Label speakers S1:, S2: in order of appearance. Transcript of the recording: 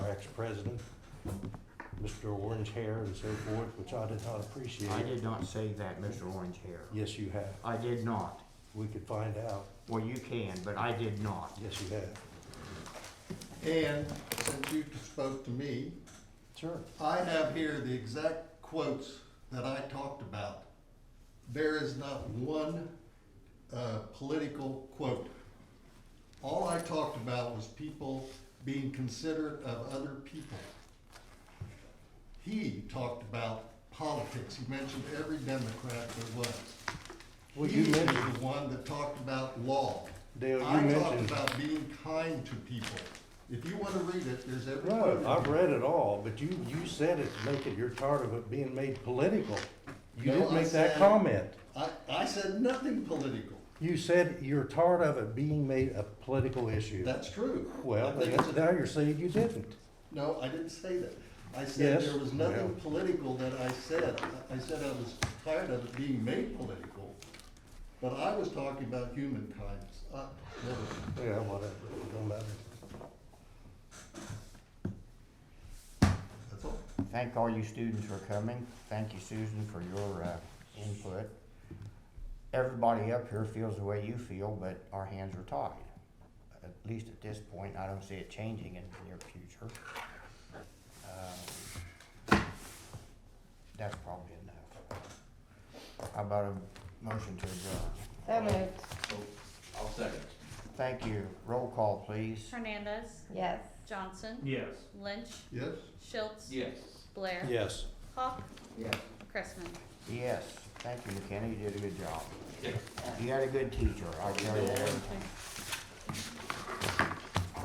S1: president, Mr. Orange Hair and so forth, which I did not
S2: I
S1: appreciate.
S2: did not say that, Mr. Orange Hair.
S1: Yes, you have.
S2: I did not.
S1: We could find out.
S2: Well, you can, but I did not.
S1: Yes, you have.
S3: And since you spoke to me,
S1: Sure.
S3: I have here the exact quotes that I talked about. There is not one, uh, political quote. All I talked about was people being considerate of other people. He talked about politics. He mentioned every Democrat there was.
S1: Well,
S3: He
S1: you
S3: was
S1: mentioned,
S3: the one that talked about law.
S1: Dale, you
S3: I talked
S1: mentioned,
S3: about being kind to people. If you wanna read it, there's every.
S1: no, I've read it all, but you, you said it, to make it, you're tired of it being made political. You
S3: No,
S1: did
S3: I
S1: make that
S3: said-
S1: comment.
S3: I, I said nothing political.
S1: You said you're tired of it being made a political issue.
S3: That's true.
S1: Well,
S3: I think
S1: that's-
S3: it's a-
S1: now you're saying you didn't.
S3: No, I didn't say that. I said
S1: Yes,
S3: there was
S1: well.
S3: nothing political that I said. I I said I was tired of it being made political, but I was talking about human kindness. I- never-
S1: Yeah, whatever, it don't matter.
S3: That's all.
S2: Thank all you students for coming. Thank you, Susan, for your uh, input. Everybody up here feels the way you feel, but our hands are tied. At least at this point, I don't see it changing in the near future. Um, That's probably enough. How about a motion to adjourn?
S4: So moved.
S5: I'll second.
S2: Thank you. Roll call, please.
S6: Hernandez,
S4: Yes.
S6: Johnson,
S5: Yes.
S6: Lynch,
S3: Yes?
S6: Schultz,
S5: Yes.
S6: Blair,
S1: Yes.
S6: Hawk,
S5: Yes.
S6: Cressman.
S2: Yes, thank you, McKenna. You did a good job. You had a good teacher. I tell you that every time.